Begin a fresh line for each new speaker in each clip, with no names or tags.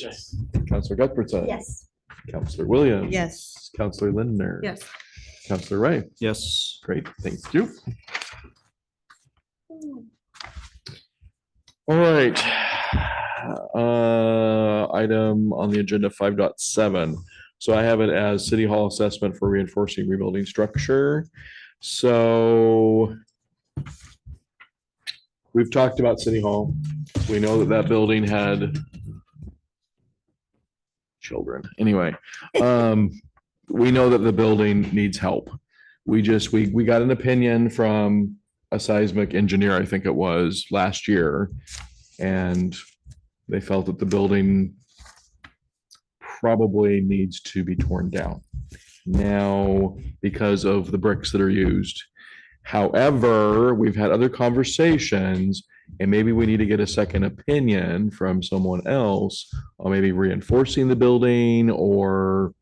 Yes.
Counselor Cuthbertson.
Yes.
Counselor Williams.
Yes.
Counselor Lindner.
Yes.
Counselor Ray.
Yes.
Great, thank you. All right. Uh, item on the agenda five point seven. So I have it as City Hall assessment for reinforcing rebuilding structure. So we've talked about City Hall. We know that that building had children. Anyway, um, we know that the building needs help. We just, we, we got an opinion from a seismic engineer, I think it was, last year. And they felt that the building probably needs to be torn down now because of the bricks that are used. However, we've had other conversations and maybe we need to get a second opinion from someone else on maybe reinforcing the building or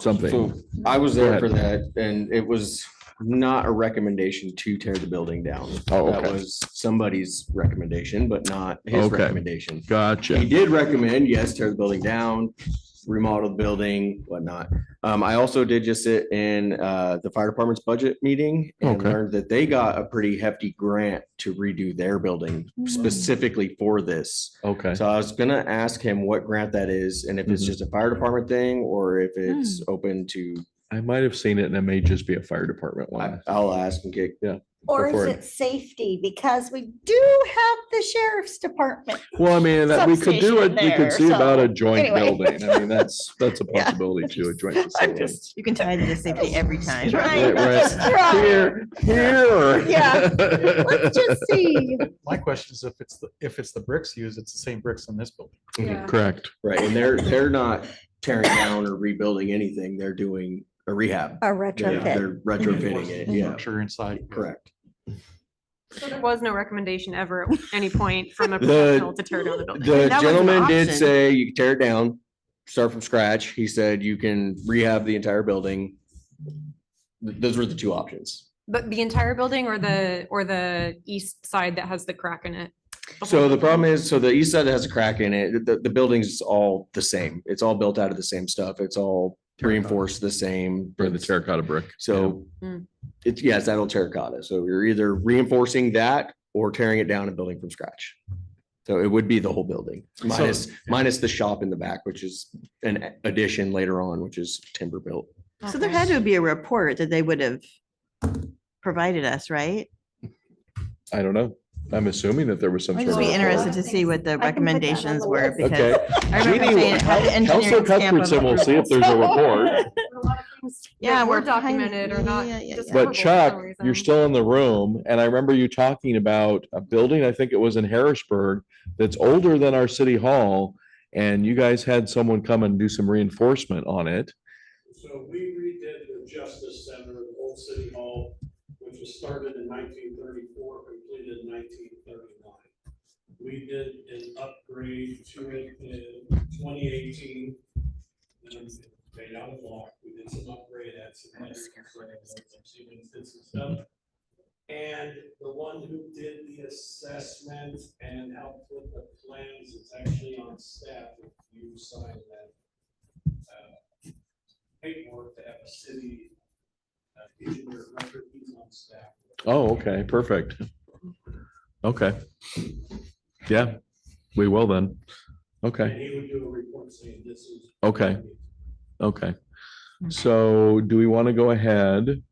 something.
So I was there
Go
for that and it was not a recommendation to tear the building down.
Oh,
That
okay.
was somebody's recommendation, but not his
Okay.
recommendation. He
Gotcha.
did recommend, yes, tear the building down, remodel the building, whatnot. Um, I also did just sit in, uh, the fire department's budget meeting and
Okay.
learned that they got a pretty hefty grant to redo their building specifically for this.
Okay.
So I was gonna ask him what grant that is and if it's
Mhm.
just a fire department thing or
Hmm.
if it's open to
I might have seen it and it may just be a fire department
I-
one.
I'll ask and get,
Or
Before-
is it safety? Because we do have the sheriff's department.
Well, I mean, that we could do it, we
Substation there,
could see about a
so,
joint
anyway.
building. I mean, that's, that's a
Yeah.
possibility to a joint
I'm
facility.
just
You can tie it to safety every time.
Right,
trying,
right.
just trying.
Here, here.
Yeah. Let's just see.
My question is if it's, the if it's the bricks used, it's the same bricks in this building.
Mm-hmm.
Correct.
right, and they're, they're not tearing down or rebuilding anything, they're doing a
A
rehab. They're
retrofit.
they're retrofitting
Mm-hmm.
it, yeah,
Sure inside.
correct.
So there was no recommendation ever at any point from a
The-
professional to tear down the building.
The
That was an
gentleman did
option.
say you can tear it down, start from scratch, he said you can rehab the entire building. Th- Those were the two options.
But the entire building or the, or the east side that has the crack in it?
So the problem is, so the east side has a crack in it, the, the building's all the same, it's all built out of the same stuff, it's all reinforced the same.
For the terracotta brick.
So
Mm.
it's, yeah, it's that old terracotta. So you're either reinforcing that or tearing it down and building from scratch. So it would be the whole building minus, minus the shop in the back, which is an addition later on, which is timber built.
So there had to be a report that they would have provided us, right?
I don't know. I'm assuming that there was some.
I'd
sort
just
of
be
report.
interested to see what the
I can put that on the
recommendations were
list.
because I remember
Jeannie,
saying it had an
Counselor
engineering stamp of
Cuthbertson will see if
approval.
there's a report,
Yeah,
Yeah, we're
we're behind-
documented or not.
yeah, yeah, yeah, yeah.
discoverable
but
for
Chuck,
some reason.
you're still in the room. And I remember you talking about a building, I think it was in Harrisburg, that's older than our city hall. And you guys had someone come and do some reinforcement on it.
So we redid the Justice Center, the old city hall, which was started in nineteen thirty-four, completed in nineteen thirty-nine. We did an upgrade to it in twenty eighteen. And made out a block, we did some upgrade, at some letters, some did some stuff. And the one who did the assessment and helped with the plans is actually on staff, if you sign that. uh, paperwork to have a city uh, engineer record he's on staff.
Oh, okay, perfect. Okay. Yeah, we will then. Okay,
And he would do a report saying this is.
Okay. okay. So do we want to go ahead?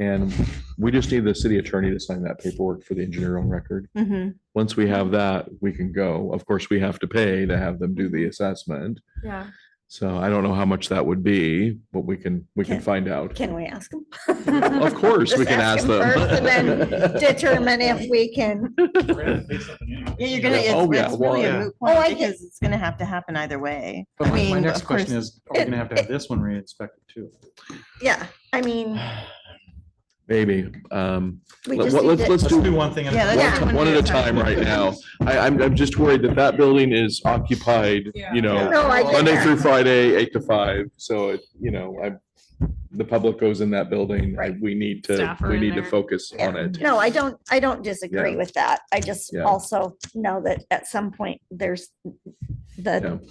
And we just need the city attorney to sign that paperwork for the engineer on record.
Mhm.
Once we have that, we can go. Of course, we have to pay to have them do the assessment.
Yeah.
So I don't know how much that would be, but we can, we can
Can-
find out.
Can we ask them?
Of course, we
Just
can ask
him first and then
them.
Determine if we can.
Yeah, you're gonna,
Oh, yeah,
it's, it's really
well,
a moot
Oh, I get-
point because it's gonna have to happen either way.
But
I
my- my
mean,
next
of course,
question is, are we gonna have to have this one re-inspected too?
Yeah, I mean,
Maybe. Um,
we
Let-
just
what-
need
let's-
to-
let's
Let's do one thing. at a
Yeah,
time.
let's do
one one at a time right now. I, I'm, I'm just worried that that building is occupied, you know,
No, I get
Monday
that.
through Friday, eight to five. So, it- you know, I, the public goes in that building. I- We need to,
Staff are
we
in
need to
there.
focus on it.
No, I don't, I don't disagree
Yeah.
with that. I just
Yeah.
also know that at some point, there's,
the
Yeah.